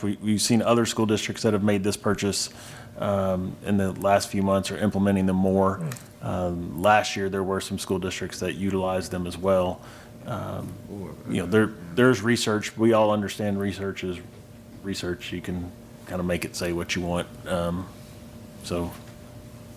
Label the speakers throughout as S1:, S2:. S1: We, we've seen other school districts that have made this purchase um, in the last few months are implementing them more. Um, Last year, there were some school districts that utilized them as well. Um, You know, there, there's research, we all understand research is research. You can kind of make it say what you want. Um, So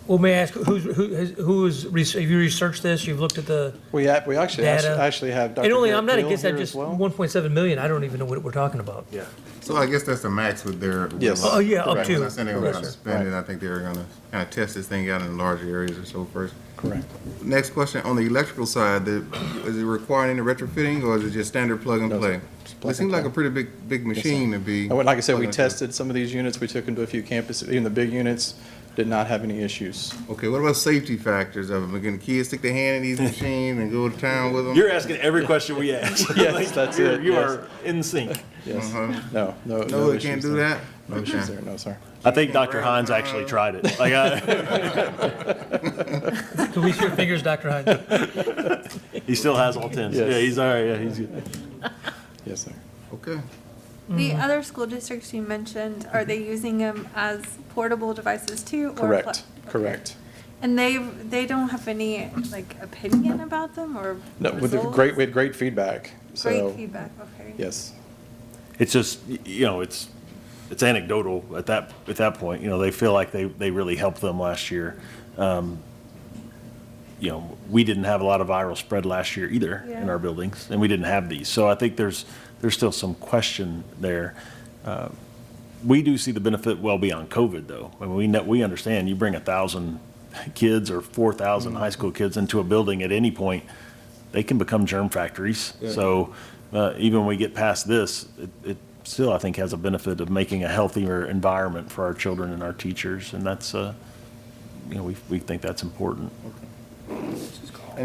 S2: Well, may I ask, who's, who, has- who is, res- have you researched this? You've looked at the
S3: We, act- we actually, act-
S2: data?
S3: actually have Dr.
S2: And only,
S3: Garrett
S2: I'm not
S3: Beal
S2: against that,
S3: here as
S2: just
S3: well.
S2: one point seven million, I don't even know what we're talking about.
S1: Yeah.
S4: So I guess that's the max with their.
S3: Yes.
S2: Oh, yeah, up
S4: Right,
S2: to.
S4: When I said they were
S2: Correct.
S4: gonna spend it, I think they were gonna kind of test this thing out in larger areas or so first. Correct. Next question, on the electrical side, the- is it requiring any retrofitting or is it just standard plug and
S3: No,
S4: play?
S3: it's plug
S4: It
S3: and
S4: seems like a
S3: play.
S4: pretty big, big machine to be.
S3: And what- like I said, we
S4: plugging into.
S3: tested some of these units, we took them to a few campuses, even the big units, did not have any issues.
S4: Okay, what about safety factors of them? Can kids stick their hand in these machines and go to town with them?
S1: You're asking every question we ask.
S3: Yes,
S1: Like,
S3: that's
S1: you're-
S3: it,
S1: You
S3: yes.
S1: are in sync.
S3: Yes,
S4: Uh-huh.
S3: no, no.
S4: No, it can't
S3: issues
S4: do
S3: there.
S4: that?
S3: No issues
S4: Okay.
S3: there, no, sir.
S1: I think Dr. Hines actually tried it. Like, I,
S2: Can we see your fingers, Dr. Hines?
S1: he still has all tens.
S3: Yes.
S1: Yeah, he's all right. Yeah, he's good.
S3: Yes, sir.
S4: Okay.
S5: The
S3: Mm.
S5: other school districts you mentioned, are they using them as portable devices too? or pla-
S3: Mm-hmm. Correct, correct.
S5: And they, they don't have any, like, opinion about them or
S3: No, with the
S5: results?
S3: great, with great feedback, so.
S5: Great feedback, okay.
S3: Yes,
S1: It's just, y- you know, it's, it's anecdotal at that, at that point. You know, they feel like they, they really helped them last year. Um, You know, we didn't have a lot of viral spread last year either in
S5: Yeah.
S1: our buildings, and we didn't have these. So I think there's, there's still some question there. Uh, We do see the benefit well beyond COVID, though. I mean, we know, we understand, you bring a thousand kids or four thousand high school kids into a building at any point, they can become germ factories. So uh, even when we get past this, it, it still, I think, has a benefit of making a healthier environment for our children and our teachers, and that's, uh, you know, we, we think that's important.
S4: And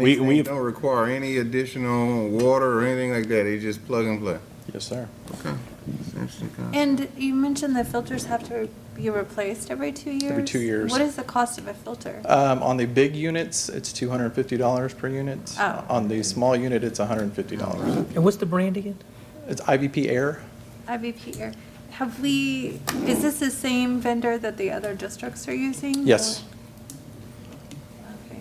S1: We-
S4: these things
S1: we've-
S4: Don't require any additional water or anything like that. It's just plug and play.
S3: yes, sir.
S4: Okay. It's interesting concept.
S5: And you mentioned the filters have to be replaced every two years?
S3: two years.
S5: What is the cost of a filter?
S3: Um, on the big units, it's two hundred and fifty dollars per unit.
S5: Oh.
S3: On the small unit, it's hundred and fifty dollars.
S2: And what's the brand again?
S3: It's IVP Air.
S5: IVP or, have we, is this the same vendor that the other districts are using?
S3: Yes. Mm-hmm.
S5: or- Okay.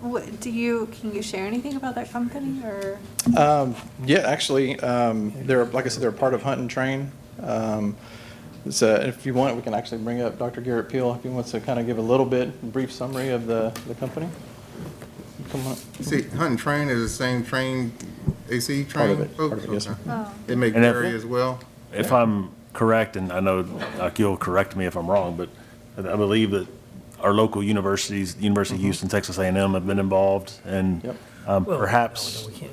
S5: What, do you, can you share anything about that company or?
S3: Um, yeah, actually, um, they're, like I said, they're a part of Hunt and Train. Um, so if you want, we can actually bring up Dr. Garrett Peel if he wants to kind of give a little bit, brief summary of the, the company. Come on.
S4: See, hunting train is the same train, AC
S3: Part
S4: train?
S3: of it, part of it,
S4: folks?
S3: yes, sir.
S4: Okay. It may
S1: And if-
S4: vary as well?
S1: If I'm correct, and I know Doc, you'll correct me if I'm wrong, but I believe that our local universities, University of Houston, Texas A and M have been involved, and
S3: Yep.
S1: um,
S2: Well,
S1: perhaps
S2: no, no, we can't.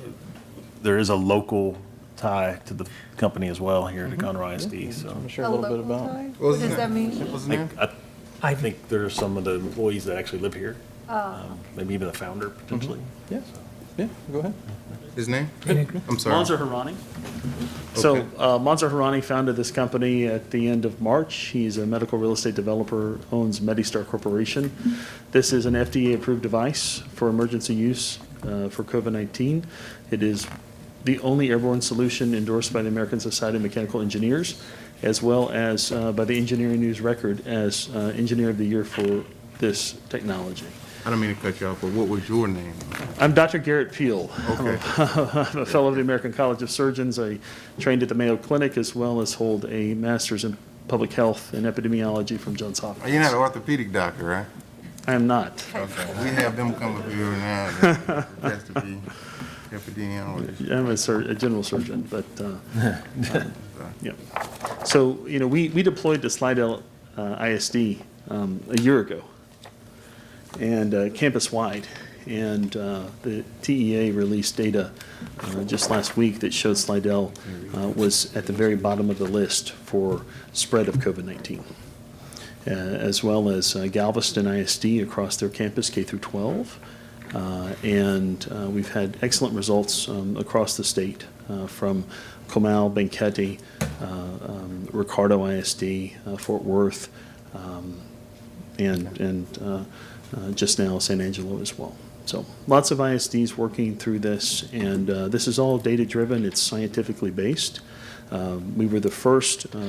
S1: there is a local tie to the company as well here at Conroe ISD, so.
S3: I'm sure a little bit about.
S5: What does that mean?
S4: What's the name?
S1: I I think there are some of the employees that actually live here, um, maybe even the founder potentially.
S3: Yeah, yeah, go ahead.
S4: His name? I'm
S6: Monzer
S4: sorry.
S6: Harani. So uh, Monzer Harani founded this company at the end of March. He's a medical real estate developer, owns MediStar Corporation. This is an FDA-approved device for emergency use uh, for COVID-19. It is the only airborne solution endorsed by the American Society of Mechanical Engineers, as well as uh, by the Engineering News Record as uh, Engineer of the Year for this technology.
S4: I don't mean to cut you off, but what was your name?
S6: I'm Dr. Garrett Peel.
S4: Okay.
S6: I'm a fellow of the American College of Surgeons. I trained at the Mayo Clinic as well as hold a master's in public health and epidemiology from Johns Hopkins.
S4: You're not an orthopedic doctor, right?
S6: I am not.
S4: Okay. We have them come up here now, and then just to be epidemiologist.
S6: I'm a, sur- a general surgeon, but uh, um, yeah. So you know, we, we deployed to Slidell uh, ISD um, a year ago, and uh, campus wide, and uh, the TEA released data uh, just last week that showed Slidell uh, was at the very bottom of the list for spread of COVID-19 uh, as well as uh, Galveston ISD across their campus, K through 12. Uh, And uh, we've had excellent results um, across the state uh, from Comal, Benketti, uh, um, Ricardo ISD, uh, Fort Worth, um, and, and uh, uh, just now San Angelo as well. So lots of ISDs working through this, and uh, this is all data-driven. It's scientifically based. Um, We were the first uh,